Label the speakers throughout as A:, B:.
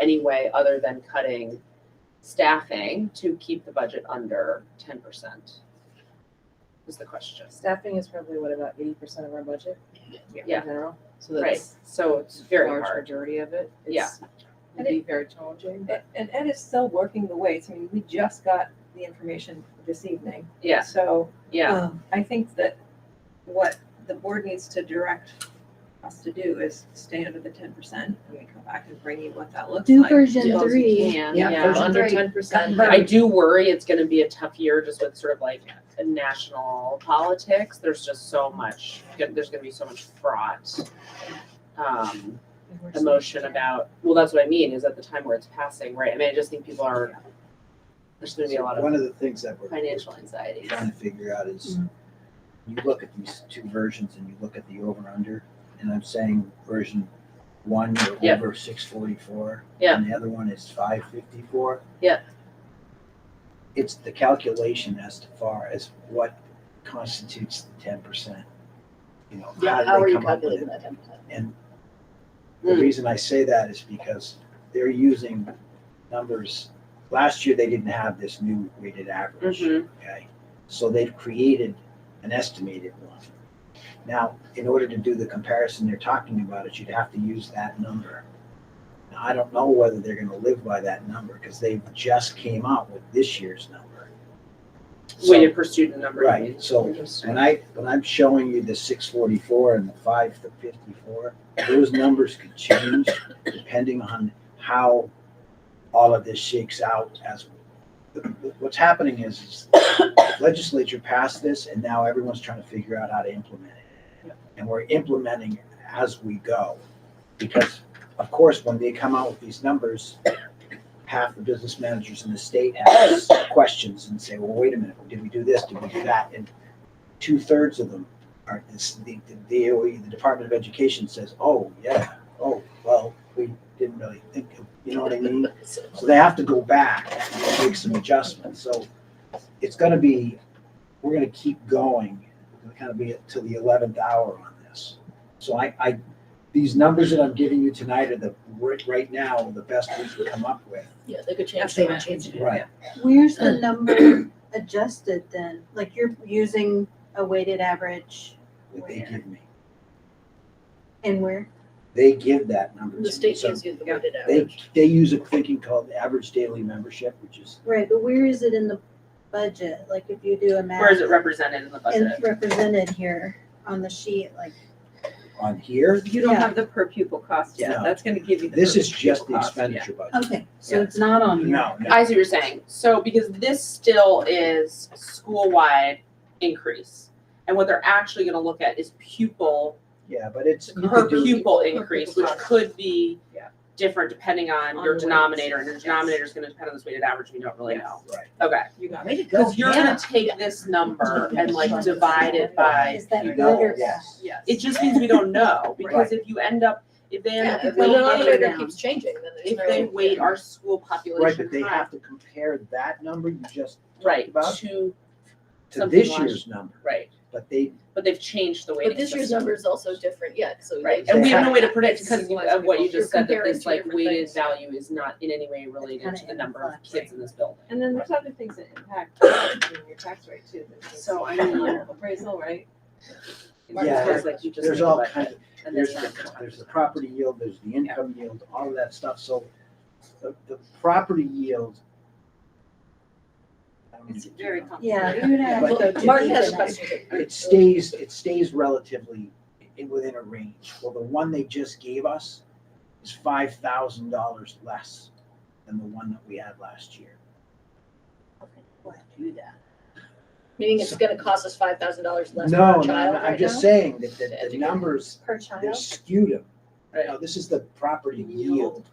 A: any way other than cutting staffing to keep the budget under ten percent? Is the question.
B: Staffing is probably what, about eighty percent of our budget?
A: Yeah.
B: In general, so
A: Right,
B: that's
A: so it's
B: the
A: very
B: large
A: hard.
B: majority of it.
A: Yeah.
B: It's- It'd be very challenging, but
C: And Ed is still working the weights. I mean, we just got the information this evening.
A: Yeah,
C: So
A: yeah,
C: um, I think that what the board needs to direct us to do is stay under the ten percent and we come back and bring you what that looks
D: Do
C: like.
D: version
A: Yeah.
D: three.
A: can,
B: yeah,
A: yeah.
B: if it's under
D: Three.
B: ten percent.
A: I do worry it's gonna be a tough year just with sort of like national politics. There's just so much, there's gonna be so much fraught. Um, emotion about, well, that's what I mean, is at the time where it's passing, right? I mean, I just think people are, there's gonna be a lot of
E: One of the things that we're
A: financial anxiety.
E: trying to figure out is, you look at these two versions and you look at the over under, and I'm saying version one, you're
A: Yeah.
E: over six forty-four.
A: Yeah.
E: And the other one is five fifty-four.
A: Yeah.
E: It's the calculation as to far as what constitutes the ten percent. You know, how
D: How
E: do
D: are
E: they
D: you
E: come up with it?
D: calculating that ten percent? Hmm.
E: The
A: Mm.
E: reason I say that is because they're using numbers, last year they didn't have this new weighted average.
D: Mm-hmm.
A: Mhm.
E: Okay, so they've created an estimated one. Now, in order to do the comparison they're talking about, it you'd have to use that number. Now, I don't know whether they're gonna live by that number, because they just came out with this year's number. So,
A: Weighted per student number. you mean.
E: right, so when I, when I'm showing you the six forty-four and the five fifty-four, those numbers could change depending on how all of this shakes out as, what's happening is, is the legislature passed this and now everyone's trying to figure out how to implement it. And we're implementing as we go. Because of course, when they come out with these numbers, half the business managers in the state ask questions and say, well, wait a minute, did we do this? Did we do that? And two thirds of them are, is the, the DOE, the Department of Education says, oh, yeah, oh, well, we didn't really think of, you know what I mean? So they have to go back and make some adjustments. So it's gonna be, we're gonna keep going, We're gonna kind of be till the eleventh hour on this. So I, I, these numbers that I'm giving you tonight are the, right, right now, the best we can come up with.
F: Yeah, they could change
C: That's
F: so
C: the
F: much.
C: change.
E: Right.
D: Where's the number adjusted then? Like you're using a weighted average
E: That they give me.
D: and where?
E: They give that number to me.
F: The state
E: So
F: gives you the weighted
E: They,
F: average.
E: they use a thinking called the average daily membership, which is
D: Right, but where is it in the budget? Like if you do a math.
A: Where is it represented in the
D: And
A: budget?
D: it's represented here on the sheet, like,
E: on here.
C: You don't
D: Yeah.
C: have the per pupil cost yet.
E: No.
C: That's gonna give you the.
E: This
C: per
E: is just the
C: pupil cost, yeah.
E: expenditure budget.
D: okay, so it's not on here.
E: No, no,
A: I see what you're saying. So because this still is school-wide increase. And what they're actually gonna look at is pupil,
E: yeah, but it's, you
A: per
E: could do,
A: pupil increase, which
C: cost.
A: could be
C: Yeah.
A: different depending on
B: On
A: your
B: the weights.
A: denominator, and your denominator is gonna depend on this weighted average, we don't really
C: Yes.
A: know.
E: right.
A: Okay,
C: You got
F: Way
C: it.
F: to go,
A: cause you're gonna
F: Hannah.
A: take this number and like divide it by
D: Is that
E: You
D: good
E: know,
D: or bad?
E: yes.
C: Yes.
A: It just means we don't know, because if you end up, if they end
F: Yeah,
A: up,
F: if
A: if
F: the
A: they weight,
F: denominator
D: down.
F: keeps changing, then there's
A: if
F: no.
A: they weight our school
E: Right,
A: population
E: but they
A: high,
E: have to compare that number you just talked
A: right,
E: about
A: to,
E: to
A: something
E: this
A: last-
E: year's number,
A: right,
E: but they,
A: but they've changed the weighting.
F: But this year's number is also different yet, so.
A: Right,
F: they-
A: and we have no way to
F: It's
A: predict because
F: less
A: of what
F: people.
A: you
F: You're
A: just said, that
F: comparing
A: this
F: two
A: like
F: different
A: weighted
F: things.
A: value is not in any way related
D: kinda
A: to the
D: in the
A: number of
D: flex,
A: kids in this building.
B: And then there's other things that impact your tax rate too. that needs
A: So, I mean,
B: to be Appraisal, right?
A: Marcus
E: Yeah,
A: was like, you just
E: there's
A: think
E: all
A: about
E: kinds
A: it,
E: of,
A: and
E: there's,
A: there's
E: the-
A: not-
E: there's the property yield, there's the income yield, all of that stuff, so the, the property yield. I don't
B: It's
E: need to
B: very
E: know.
D: Yeah, you would have to
E: But-
D: go to.
F: Martin
D: the
F: has a
D: internet.
F: question.
E: It stays, it stays relatively i- within a range. Well, the one they just gave us is five thousand dollars less than the one that we had last year.
F: Meaning it's gonna cost us five thousand dollars less per
E: No,
F: child
E: no, no, I'm
F: right
E: just
F: now?
E: saying that
F: To
E: the, the
F: educate.
E: numbers,
D: Per
E: they're
D: child?
E: skewed them.
A: Right.
E: Now, this is the property yield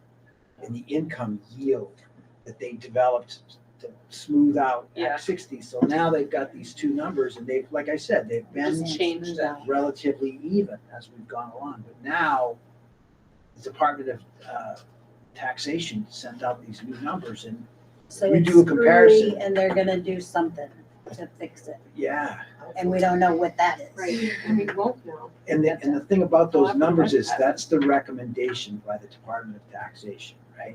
E: and the income yield that they developed to smooth out
A: Yeah.
E: Act sixty. So now they've got these two numbers and they've, like I said, they've been.
A: Just changed that.
E: relatively even as we've gone along. But now, the Department of uh, Taxation sent out these new numbers, and
D: So
E: we
D: it's
E: do a comparison.
D: screwy and they're gonna do something to fix it,
E: yeah.
D: and we don't know what that is.
B: Right, and we won't know.
E: And the, and the thing about those numbers is that's the recommendation by the Department of Taxation.